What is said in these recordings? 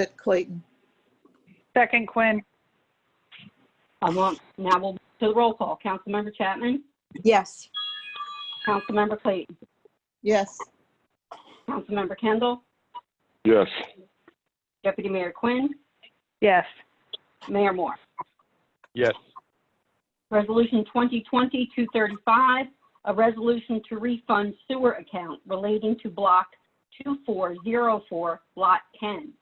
it, Clayton. Second Quinn, I will, now we'll, to the roll call. Councilmember Chapman? Yes. Councilmember Clayton? Yes. Councilmember Kendall? Yes. Deputy Mayor Quinn? yes. Mayor Moore? Yes. Resolution 2020-235, a resolution to refund sewer account relating to Block 2404, Lot 10.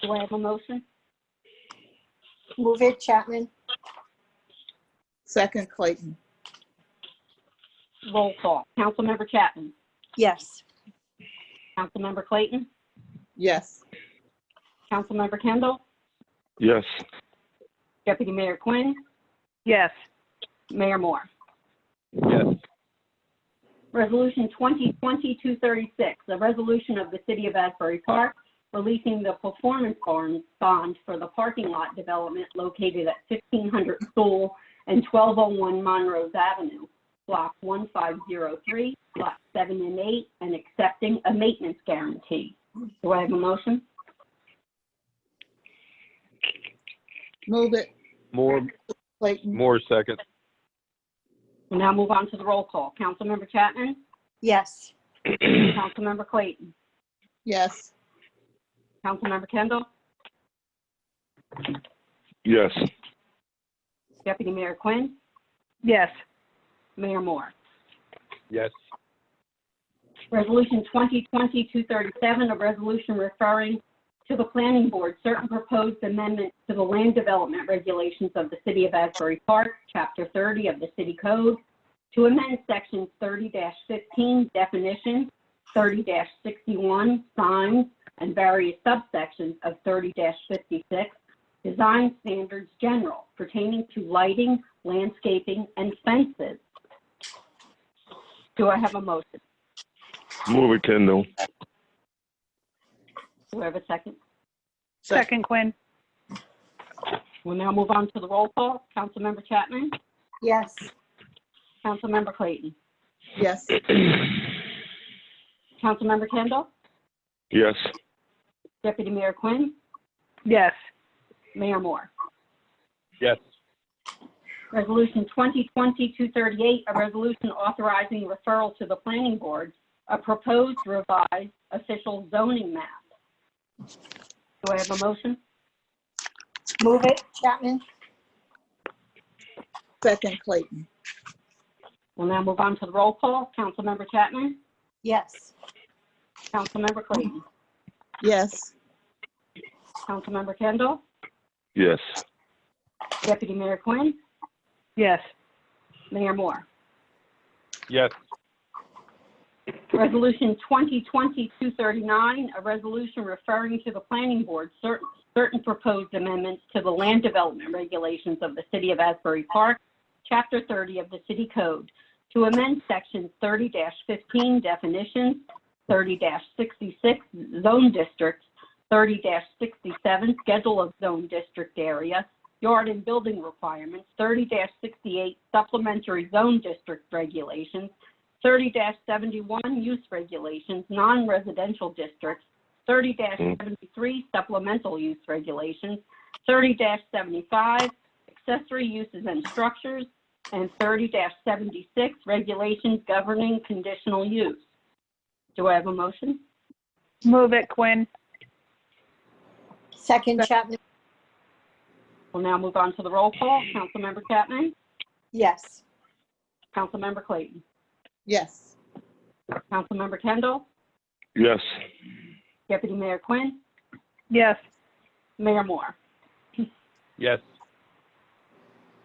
Do I have a motion? Move it Chapman. Second, Clayton. Roll call. Councilmember Chapman? Yes. Councilmember Clayton? Yes. Councilmember Kendall? Yes. Deputy Mayor Quinn? Yes. Mayor Moore? Yes. Resolution 2020-236, a resolution of the City of Asbury Park releasing the performance bond bond for the parking lot development located at 1500 School and 1201 Monroe Avenue, Block 1503, Lot 7 and 8, and accepting a maintenance guarantee. Do I have a motion? Move it, More, Clayton. more second. We'll now move on to the roll call. Councilmember Chapman? Yes. Councilmember Clayton? Yes. Councilmember Kendall? Yes. Deputy Mayor Quinn? Yes. Mayor Moore? Yes. Resolution 2020-237, a resolution referring to the planning board certain proposed amendments to the land development regulations of the City of Asbury Park, Chapter 30 of the City Code, to amend Sections 30-15 definitions, 30-61 signs, and various subsections of 30-56 design standards general pertaining to lighting, landscaping, and fences. Do I have a motion? Move it, Kendall. Do I have a second? Second Quinn, We'll now move on to the roll call. Councilmember Chapman? Yes. Councilmember Clayton? Yes. Councilmember Kendall? Yes. Deputy Mayor Quinn? yes. Mayor Moore? Yes. Resolution 2020-238, a resolution authorizing referral to the planning board, a proposed revised official zoning map. Do I have a motion? Move it Chapman. Second, Clayton. We'll now move on to the roll call. Councilmember Chapman? Yes. Councilmember Clayton? Yes. Councilmember Kendall? Yes. Deputy Mayor Quinn? Yes. Mayor Moore? Yes. Resolution 2020-239, a resolution referring to the planning board certain, certain proposed amendments to the land development regulations of the City of Asbury Park, Chapter 30 of the City Code, to amend Sections 30-15 definitions, 30-66 zone districts, 30-67 schedule of zone district area, yard and building requirements, 30-68 supplementary zone district regulations, 30-71 use regulations, non-residential districts, 30-73 supplemental use regulations, 30-75 accessory uses and structures, and 30-76 regulations governing conditional use. Do I have a motion? Move it Quinn, Second Chapman. We'll now move on to the roll call. Councilmember Chapman? Yes. Councilmember Clayton? Yes. Councilmember Kendall? Yes. Deputy Mayor Quinn? yes. Mayor Moore? Yes.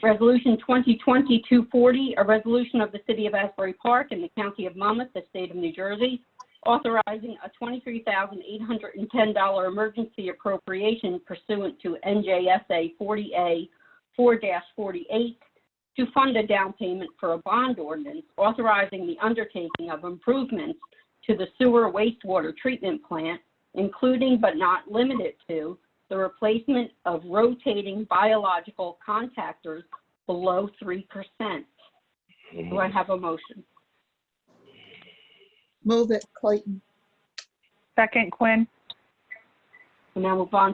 Resolution 2020-240, a resolution of the City of Asbury Park and the County of Monmouth, the State of New Jersey, authorizing a $23,810 emergency appropriation pursuant to NJSA 40A 4-48 to fund a down payment for a bond ordinance authorizing the undertaking of improvements to the sewer wastewater treatment plant, including but not limited to the replacement of rotating biological contactors below 3%. Do I have a motion? Move it, Clayton. Second Quinn, We'll now move on to